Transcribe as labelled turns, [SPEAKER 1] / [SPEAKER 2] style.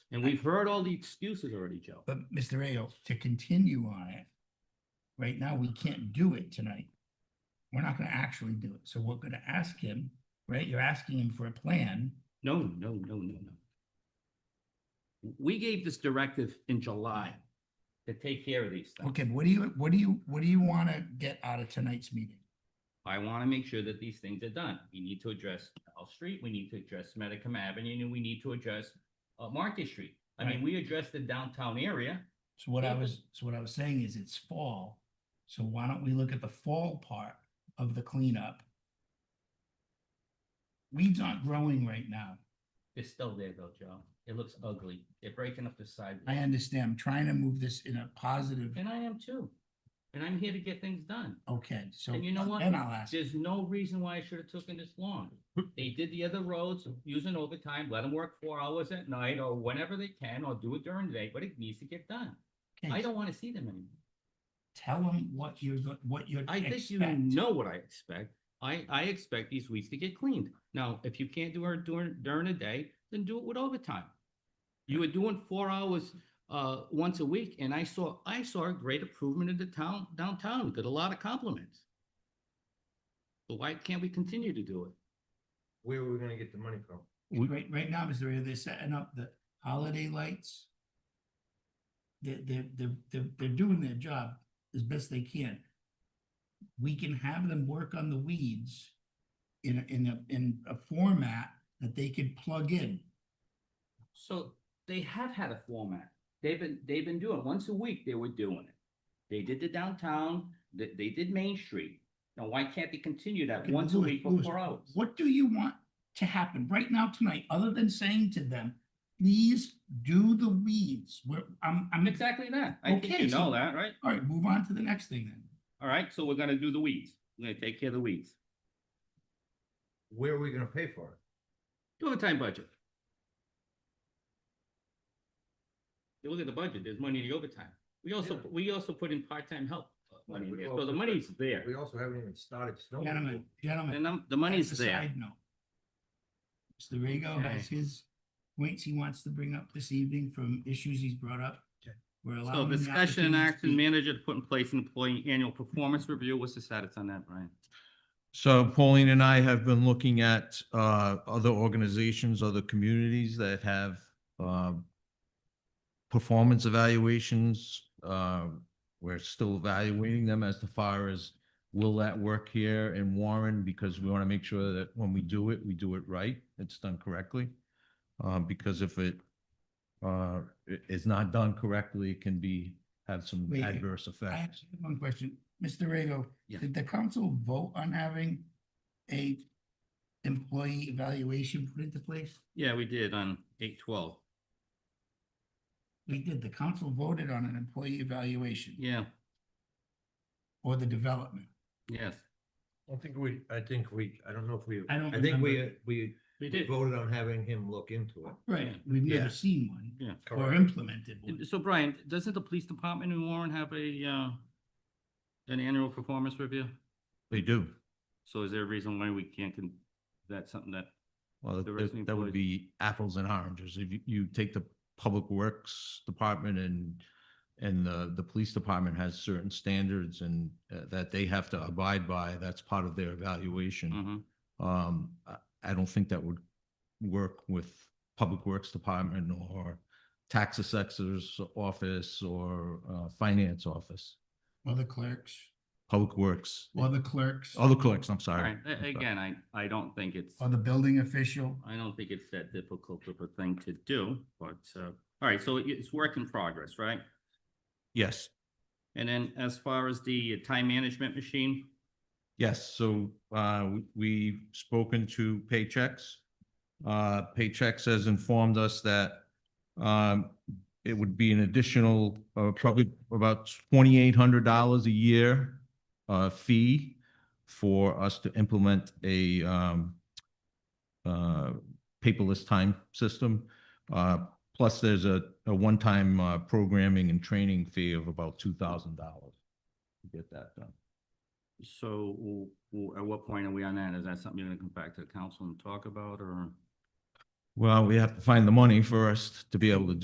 [SPEAKER 1] And we've heard all the excuses already, Joe.
[SPEAKER 2] But Mr. Ayo, to continue on it, right now, we can't do it tonight. We're not gonna actually do it, so we're gonna ask him, right? You're asking him for a plan.
[SPEAKER 1] No, no, no, no, no. We gave this directive in July to take care of these things.
[SPEAKER 2] Okay, what do you, what do you, what do you wanna get out of tonight's meeting?
[SPEAKER 1] I want to make sure that these things are done. We need to address L Street, we need to address Medicum Avenue, and we need to address uh, Market Street. I mean,
[SPEAKER 2] Right.
[SPEAKER 1] we addressed the downtown area.
[SPEAKER 2] So what I
[SPEAKER 1] Yeah, but-
[SPEAKER 2] was, so what I was saying is it's fall, so why don't we look at the fall part of the cleanup? Weeds aren't growing right now.
[SPEAKER 1] They're still there though, Joe. It looks ugly. They're breaking up the sidewalk.
[SPEAKER 2] I understand, I'm trying to move this in a positive,
[SPEAKER 1] And I am too. And I'm here to get things done.
[SPEAKER 2] okay, so.
[SPEAKER 1] And you know what?
[SPEAKER 2] Then I'll ask.
[SPEAKER 1] There's no reason why it should have taken this long. They did the other roads using overtime, let them work four hours at night or whenever they can, or do it during the day, but it needs to get done.
[SPEAKER 2] Okay,
[SPEAKER 1] I don't want to see them anymore.
[SPEAKER 2] Tell him what you're, go- what you're.
[SPEAKER 1] I think you know what I expect. I, I expect these weeds to get cleaned. Now, if you can't do it during, during the day, then do it with overtime. You were doing four hours, uh, once a week, and I saw, I saw a great improvement in the town, downtown, got a lot of compliments. But why can't we continue to do it?
[SPEAKER 3] Where were we gonna get the money from?
[SPEAKER 2] Right, right now, Mr. Ray, they're setting up the holiday lights. They're, they're, they're, they're, they're doing their job as best they can. We can have them work on the weeds in a, in a, in a format that they could plug in.
[SPEAKER 1] So they have had a format. They've been, they've been doing, once a week, they were doing it. They did the downtown, they, they did Main Street. Now, why can't they continue that
[SPEAKER 2] Okay,
[SPEAKER 1] once a
[SPEAKER 2] Louis,
[SPEAKER 1] week for
[SPEAKER 2] Louis,
[SPEAKER 1] four hours?
[SPEAKER 2] What do you want to happen right now tonight, other than saying to them, please do the weeds? Where, I'm, I'm,
[SPEAKER 1] Exactly that. I think
[SPEAKER 2] Okay,
[SPEAKER 1] you know
[SPEAKER 2] so-
[SPEAKER 1] that, right?
[SPEAKER 2] all right, move on to the next thing then.
[SPEAKER 1] All right, so we're gonna do the weeds. We're gonna take care of the weeds.
[SPEAKER 3] Where are we gonna pay for it?
[SPEAKER 1] Do overtime budget. You Look at the budget, there's money in the overtime. We also,
[SPEAKER 3] Yeah.
[SPEAKER 1] we also put in part-time help uh,
[SPEAKER 3] Right,
[SPEAKER 1] money in
[SPEAKER 3] we
[SPEAKER 1] there, so
[SPEAKER 3] also
[SPEAKER 1] the
[SPEAKER 3] put-
[SPEAKER 1] money's there.
[SPEAKER 3] We also haven't even started snow.
[SPEAKER 2] Gentlemen, gentlemen.
[SPEAKER 1] And um, the
[SPEAKER 2] That's
[SPEAKER 1] money's
[SPEAKER 2] a
[SPEAKER 1] there.
[SPEAKER 2] side note. Mr. Rego has his points he wants to bring up this evening from issues he's brought up. We're
[SPEAKER 1] So
[SPEAKER 2] allowing. him the
[SPEAKER 1] discussion and
[SPEAKER 2] opportunity to
[SPEAKER 1] action
[SPEAKER 2] speak.
[SPEAKER 1] manager to put in place an employee annual performance review. What's the status on that, Brian?
[SPEAKER 4] So Pauline and I have been looking at uh, other organizations, other communities that have uh, performance evaluations. Uh, We're still evaluating them as to far as will that work here in Warren? Because we want to make sure that when we do it, we do it right, it's done correctly. Uh, Because if it uh, i- is not done correctly, it can be, have some
[SPEAKER 2] Wait,
[SPEAKER 4] adverse
[SPEAKER 2] I have
[SPEAKER 4] effects.
[SPEAKER 2] one question. Mr. Rego,
[SPEAKER 1] Yeah.
[SPEAKER 2] did the council vote on having a employee evaluation put into place?
[SPEAKER 1] Yeah, we did on eight twelve.
[SPEAKER 2] We did. The council voted on an employee evaluation
[SPEAKER 1] Yeah,
[SPEAKER 2] or the development.
[SPEAKER 1] yes.
[SPEAKER 3] I think we, I think we, I don't know if we,
[SPEAKER 2] I don't
[SPEAKER 3] I think we, uh,
[SPEAKER 2] remember.
[SPEAKER 3] we
[SPEAKER 1] We did.
[SPEAKER 3] voted on having him look into it.
[SPEAKER 2] Right. We've
[SPEAKER 4] Yeah.
[SPEAKER 2] never seen one
[SPEAKER 1] Yeah.
[SPEAKER 2] or
[SPEAKER 3] Correct.
[SPEAKER 2] implemented one.
[SPEAKER 1] So Brian, doesn't the police department in Warren have a, uh, an annual performance review?
[SPEAKER 4] They do.
[SPEAKER 1] So is there a reason why we can't, con- that's something that,
[SPEAKER 4] Well,
[SPEAKER 1] the
[SPEAKER 4] that-
[SPEAKER 1] resident
[SPEAKER 4] that, that would
[SPEAKER 1] employees.
[SPEAKER 4] be apples and oranges. If you, you take the Public Works Department and, and the, the Police Department has certain standards and uh, that they have to abide by, that's part of their evaluation.
[SPEAKER 1] Mhm.
[SPEAKER 4] Um, I, I don't think that would work with Public Works Department or Tax Assessor's Office or, uh, Finance Office,
[SPEAKER 2] Or the clerks,
[SPEAKER 4] Public Works,
[SPEAKER 2] or the clerks,
[SPEAKER 4] other clerks, I'm
[SPEAKER 1] All
[SPEAKER 4] sorry.
[SPEAKER 1] right, a- again, I, I don't think it's,
[SPEAKER 2] or the building official.
[SPEAKER 1] I don't think it's that difficult of a thing to do, but, uh, all right, so it- it's work in progress, right?
[SPEAKER 4] Yes.
[SPEAKER 1] And then as far as the time management machine,
[SPEAKER 4] Yes, so uh, we- we've spoken to Paychex. Uh, Paychex has informed us that um, it would be an additional, uh, probably about twenty-eight hundred dollars a year uh, fee for us to implement a um, uh, paperless time system. Uh, Plus, there's a a one-time uh, programming and training fee of about two thousand dollars to get that done.
[SPEAKER 1] so w- w- at what point are we on that? Is that something you're gonna come back to the council and talk about, or?
[SPEAKER 4] Well, we have to find the money first to be able to do.